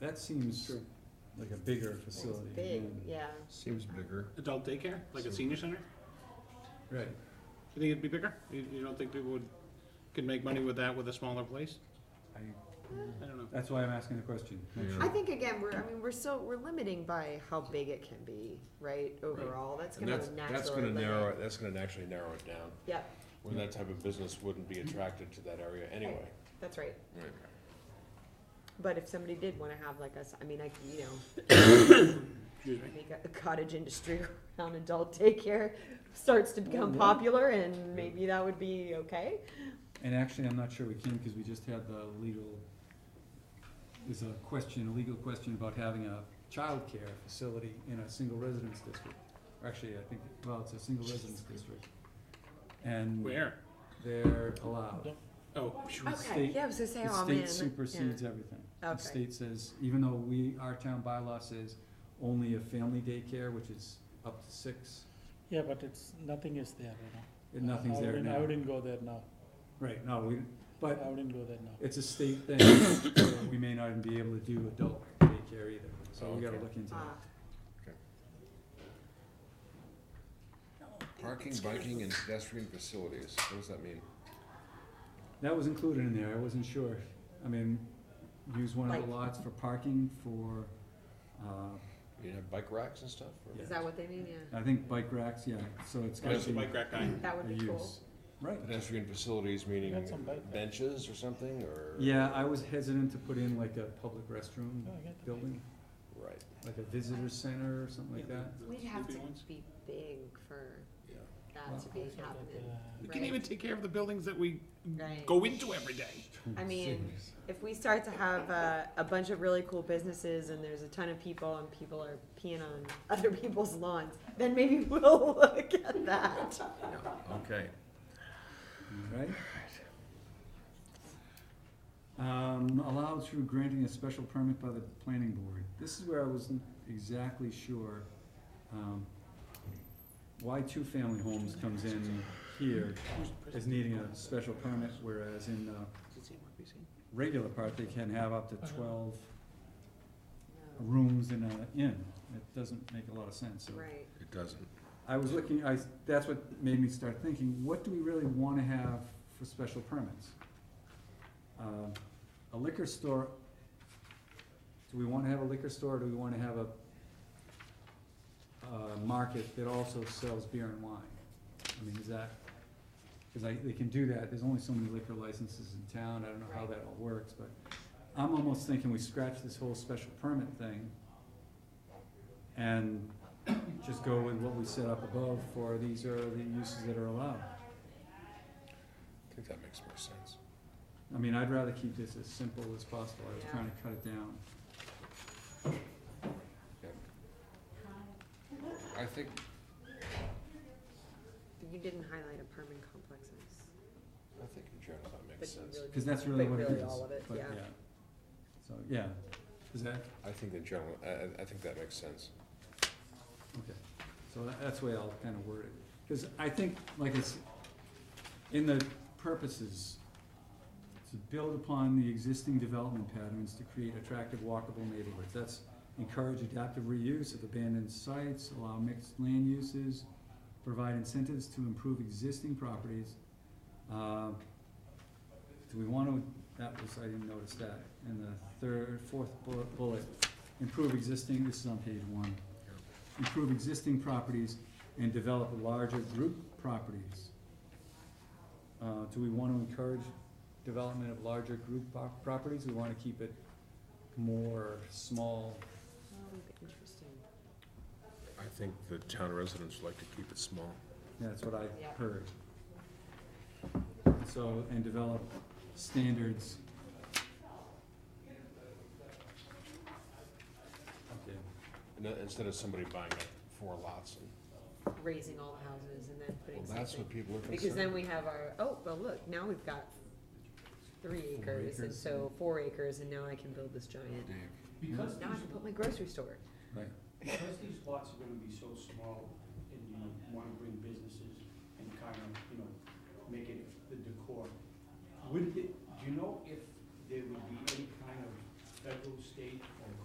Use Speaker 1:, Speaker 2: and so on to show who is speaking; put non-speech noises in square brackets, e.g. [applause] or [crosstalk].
Speaker 1: That seems
Speaker 2: True.
Speaker 1: like a bigger facility.
Speaker 3: It's big,
Speaker 4: Mm.
Speaker 1: than-
Speaker 3: yeah.
Speaker 4: Seems bigger.
Speaker 2: Adult daycare, like a
Speaker 1: So-
Speaker 2: senior center?
Speaker 1: Right.
Speaker 2: You think it'd be bigger? You, you don't think people would, could make money with that with a smaller place?
Speaker 1: I-
Speaker 2: I don't know.
Speaker 1: That's why I'm asking the question. Not
Speaker 4: Yeah.
Speaker 1: sure.
Speaker 3: I think again, we're, I mean, we're so, we're limiting by how big it can be, right, overall, that's
Speaker 4: And
Speaker 3: gonna
Speaker 4: that's,
Speaker 3: naturally
Speaker 4: that's gonna
Speaker 3: limit.
Speaker 4: narrow, it- that's gonna naturally narrow it down,
Speaker 3: Yep,
Speaker 4: where that type of business wouldn't be attracted to that area anyway.
Speaker 3: that's right,
Speaker 4: Right.
Speaker 3: but if somebody did wanna have like us, I mean, I, you know,
Speaker 2: Excuse me.
Speaker 3: make a cottage industry [laughs] around adult daycare starts to become
Speaker 4: Mm-hmm.
Speaker 3: popular, and maybe that would be okay,
Speaker 1: And actually, I'm not sure we can, because we just had the legal, there's a question, a legal question about having a childcare facility in a single residence district. Or Actually, I think, well, it's a single residence district. And
Speaker 2: Where?
Speaker 1: they're allowed.
Speaker 2: Oh,
Speaker 1: The
Speaker 3: okay,
Speaker 1: state-
Speaker 3: yeah, I was gonna say,
Speaker 1: The
Speaker 3: oh, man.
Speaker 1: state supersedes everything. The
Speaker 3: Okay.
Speaker 1: state says, even though we, our town bylaw says only a family daycare, which is up to six,
Speaker 5: Yeah, but it's, nothing is there, you know.
Speaker 1: and nothing's
Speaker 5: I
Speaker 1: there
Speaker 5: wouldn't- I
Speaker 1: now.
Speaker 5: wouldn't go there now,
Speaker 1: Right, no, we, but
Speaker 5: I wouldn't go there now.
Speaker 1: it's a state thing, so we may not even be able to do adult daycare either, so we gotta look into
Speaker 3: Ah,
Speaker 1: that.
Speaker 4: Parking, biking, and pedestrian facilities, what does that mean?
Speaker 1: That was included in there, I wasn't sure, I mean, use one of
Speaker 3: Like-
Speaker 1: the lots for parking for, uh,
Speaker 4: You have bike racks and stuff? or-
Speaker 1: Yeah.
Speaker 3: is that what they mean, yeah,
Speaker 1: I think bike racks, yeah, so it's gotta
Speaker 2: That's the
Speaker 1: be
Speaker 2: bike rack guy.
Speaker 3: that
Speaker 1: a
Speaker 3: would be cool,
Speaker 1: use. Right,
Speaker 4: Pedestrian facilities, meaning
Speaker 5: Got some bike racks.
Speaker 4: benches or something, or?
Speaker 1: yeah, I was hesitant to put in like a public restroom
Speaker 3: Hmm.
Speaker 5: No, Oh, I get that.
Speaker 1: building,
Speaker 4: Right,
Speaker 1: like a visitor center or something like that.
Speaker 3: we'd have to
Speaker 2: Sleeping ones.
Speaker 3: be big for
Speaker 4: yeah.
Speaker 3: that to be
Speaker 5: Also like,
Speaker 3: happening.
Speaker 5: uh,
Speaker 2: We can
Speaker 3: Right.
Speaker 2: even take care of the buildings that we
Speaker 3: Right.
Speaker 2: go into every day.
Speaker 3: I mean, if we start to have a, a bunch of really cool businesses and there's a ton of people and people are peeing on [laughs] other people's lawns, then maybe [laughs] we'll look at that.
Speaker 4: Okay.
Speaker 1: Right? Um, allowed through granting a special permit by the planning board. This is where I wasn't exactly sure, um, why two family homes comes in here as needing a special permit, whereas in the regular part, they can have up to twelve rooms in an inn. It doesn't make a lot of sense, so.
Speaker 3: Right,
Speaker 4: It doesn't.
Speaker 1: I was looking, I, that's what made me start thinking, what do we really wanna have for special permits? Um, A liquor store, do we wanna have a liquor store, or do we wanna have a, uh market that also sells beer and wine? I mean, is that, cause I, they can do that, there's only so many liquor licenses in town, I don't know how that all works, but I'm almost thinking we scratch this whole special permit thing and just go with what we set up above for these are the uses that are allowed.
Speaker 4: I think that makes more sense.
Speaker 1: I mean, I'd rather keep this as simple as possible, I was trying to cut it down.
Speaker 4: I think,
Speaker 3: you didn't highlight apartment complexes,
Speaker 4: I think in general that
Speaker 3: but
Speaker 4: makes
Speaker 3: you
Speaker 4: sense.
Speaker 3: really.
Speaker 1: Cause that's really
Speaker 3: But
Speaker 1: what it is.
Speaker 3: really all of it,
Speaker 1: but
Speaker 3: yeah.
Speaker 1: So, yeah, is that,
Speaker 4: I think in general, I, I- I think that makes sense.
Speaker 1: okay, so tha- that's the way I'll kinda word it, cause I think, like it's, in the purposes, to build upon the existing development patterns to create attractive walkable neighborhoods, that's encourage adaptive reuse of abandoned sites, allow mixed land uses, provide incentives to improve existing properties. Uh, Do we wanna, that was, I didn't notice that, and the third, fourth bu- bullet, improve existing, this is on page one. Improve existing properties and develop larger group properties. Uh, do we wanna encourage development of larger group pop- properties, we wanna keep it more small
Speaker 3: Oh, Interesting,
Speaker 4: I think the town residents like to keep it small.
Speaker 1: That's what I
Speaker 3: Yeah.
Speaker 1: heard. So, and develop standards. Okay,
Speaker 4: And then Instead of somebody buying up four lots and,
Speaker 3: raising all houses and then putting
Speaker 4: well, that's
Speaker 3: something,
Speaker 4: what people are concerned.
Speaker 3: because then we have our, oh, well, look, now we've got three acres, and
Speaker 1: acres.
Speaker 3: so four acres, and now I can build this giant,
Speaker 6: Because
Speaker 3: now I can
Speaker 6: these,
Speaker 3: put my grocery store.
Speaker 1: right,
Speaker 6: because these lots are gonna be so small, and you wanna bring businesses and kind of, you know, make it the decor, would it, do you know if there would be any kind of federal, state,